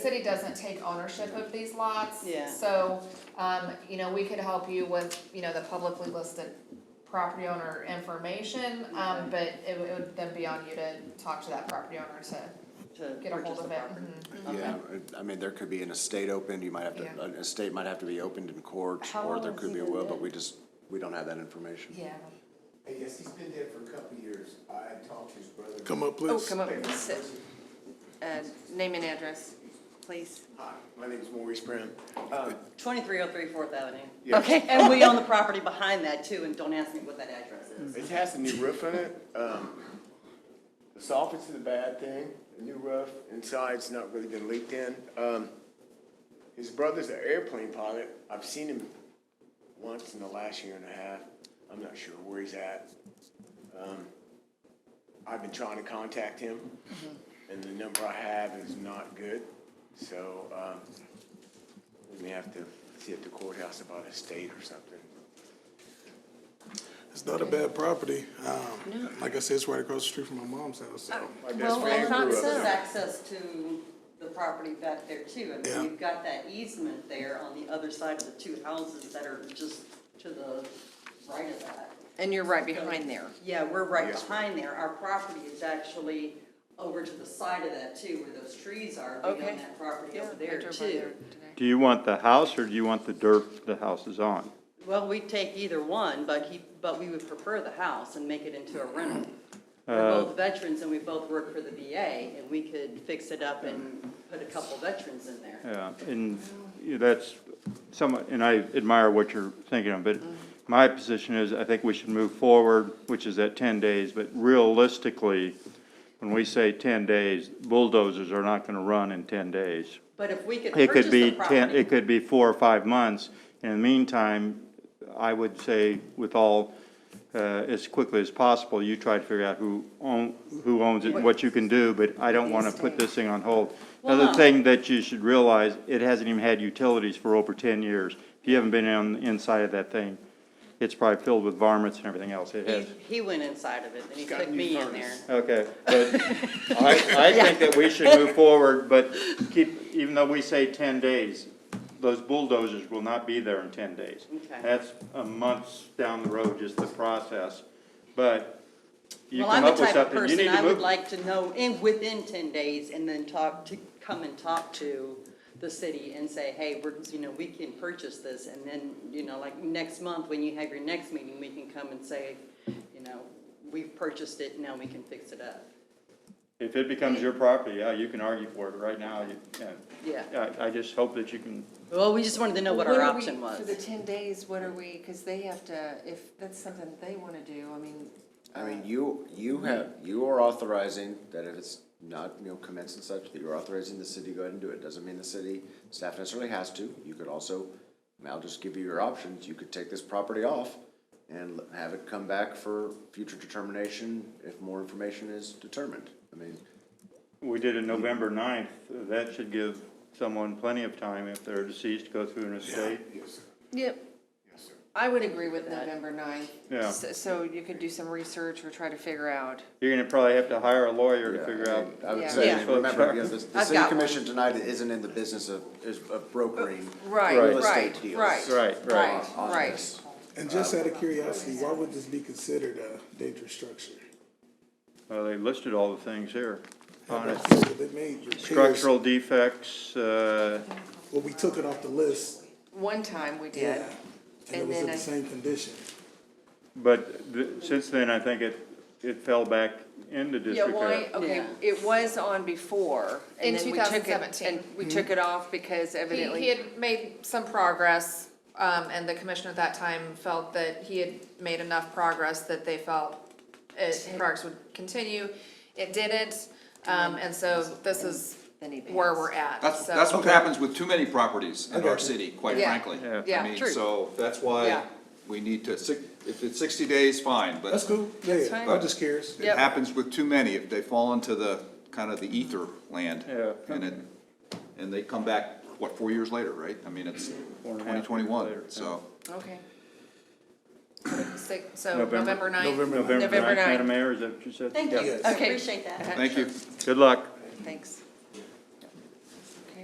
City doesn't take ownership of these lots. Yeah. So, um, you know, we could help you with, you know, the publicly listed property owner information, um, but it would, it would then be on you to talk to that property owner to to get a hold purchase the of it. property. Mhm. Yeah, I I mean, there could be an estate opened, you might have Yeah. to, an estate might have to be opened in court, How or long there has could he be a been will, but dead? we just, we don't have that information. Yeah. Hey, yes, he's been dead for a couple of years. I talked to his brother. Come up, Oh, please. come up, sit. Uh, name and address, please. Hi, my name is Maurice Brown. Um, Twenty-three oh three Fourth Avenue. Yeah. Okay. And we own the property behind that too, and don't ask me what that address is. It has a new roof on it. Um, the soffit's is a bad thing, a new roof, inside's not really been leaked in. Um, his brother's an airplane pilot. I've seen him once in the last year and a half. I'm not sure where he's at. Um, I've been trying to contact him, and the number I have is not good. So, um, we may have to see at the courthouse about a state or something. It's not a bad property. Um, like I said, it's right across the street from my mom's house, so. My best Well, friend and grew up this there. is access to the property back there too. I Yeah. mean, you've got that easement there on the other side of the two houses that are just to the right of that. And you're right behind there. Yeah, we're right Yes, behind there. Our property is actually over to the side of that too, where those trees are. We Okay. own that property over there I drove by there too. today. Do you want the house or do you want the dirt the house is on? Well, we'd take either one, but he, but we would prefer the house and make it into a rental. Uh, We're both veterans and we both work for the VA, and we could fix it up and put a couple veterans in there. Yeah, Uh, and you- that's somewhat, and I admire what you're thinking of, but my position is, I think we should move forward, which is at ten days, but realistically, when we say ten days, bulldozers are not gonna run in ten days. But if we could It purchase could the be ten, property, it could be four or five months. In the meantime, I would say with all, uh, as quickly as possible, you try to figure out who own, who owns it, and what you can do, but I don't wanna put this thing on hold. Well, Another no. thing that you should realize, it hasn't even had utilities for over ten years. If you haven't been on the inside of that thing, it's probably filled with varmints and everything else. It he, has. he went inside of it, and he Got took new me in furnace. there. Okay, but I, I think that we should move forward, but keep, even though we say ten days, those bulldozers will not be there in ten days. Okay. That's a months down the road, just the process, but you Well, come I'm the up with type of something, you person, need I to would move. like to know in, within ten days and then talk to, come and talk to the city and say, hey, we're, you know, we can purchase this. And then, you know, like next month, when you have your next meeting, we can come and say, you know, we've purchased it, now we can fix it up. If it becomes your property, yeah, you can argue for it, right now, you, Yeah. yeah. I, I just hope that you can, Well, we just wanted to know what our are we- option For the was. ten days, what are we, because they have to, if that's something they want to do, I mean, I mean, you, you have, you are authorizing that if it's not, you know, commenced and such, that you're authorizing the city to go ahead and do it. Doesn't mean the city staff necessarily has to. You could also, and I'll just give you your options. You could take this property off and l- have it come back for future determination if more information is determined. I mean, we did it November 9th. that should give someone plenty of time if they're deceased, to go through an estate. Yep. I would agree with November ninth. Yeah. So you could do some research or try to figure out. You're gonna probably have to hire a lawyer Yeah, to figure I out. mean, I would Yeah. say, Yeah. remember, you know, the, the I've city got commission tonight isn't in the business of, is of brokering Right, real right, estate deals. right. Right, right. Right, on right. this. And just out of curiosity, why would this be considered a dangerous structure? Well, they listed all the things here. Honest. They made repairs. Structural defects, uh, Well, we took it off the list, One time we did. yeah, and it And was in then the I- same condition. but th- since then, I think it, it fell back into Yeah, why, disrepair. okay, Yeah. it was on before. and In then we took it- 2017. And we took it off because He, evidently. he had made some progress, um, and the commissioner at that time felt that he had made enough progress that they felt it, progress would continue. It didn't, um, and so this is Then he where passed. we're at, That's, so- that's what happens with too many properties in our city, quite Yeah. frankly. Yeah. Yeah. I mean, True. so that's Yeah. why we need to, si- if it's sixty days, fine, That's but cool, yeah, yeah, fine. I'm just curious. it happens with too many, if they fall into the, kind of the ether land. Yeah. And it, and they come back, what, four years later, right? I mean, it's Four and a half twenty years later, twenty-one, so. Okay. Six- so November- uh, November ninth. November November ninth, ninth. Madam Mayor, is that what you said? Thank you, Yes. appreciate that. Thank you. Good luck. Thanks.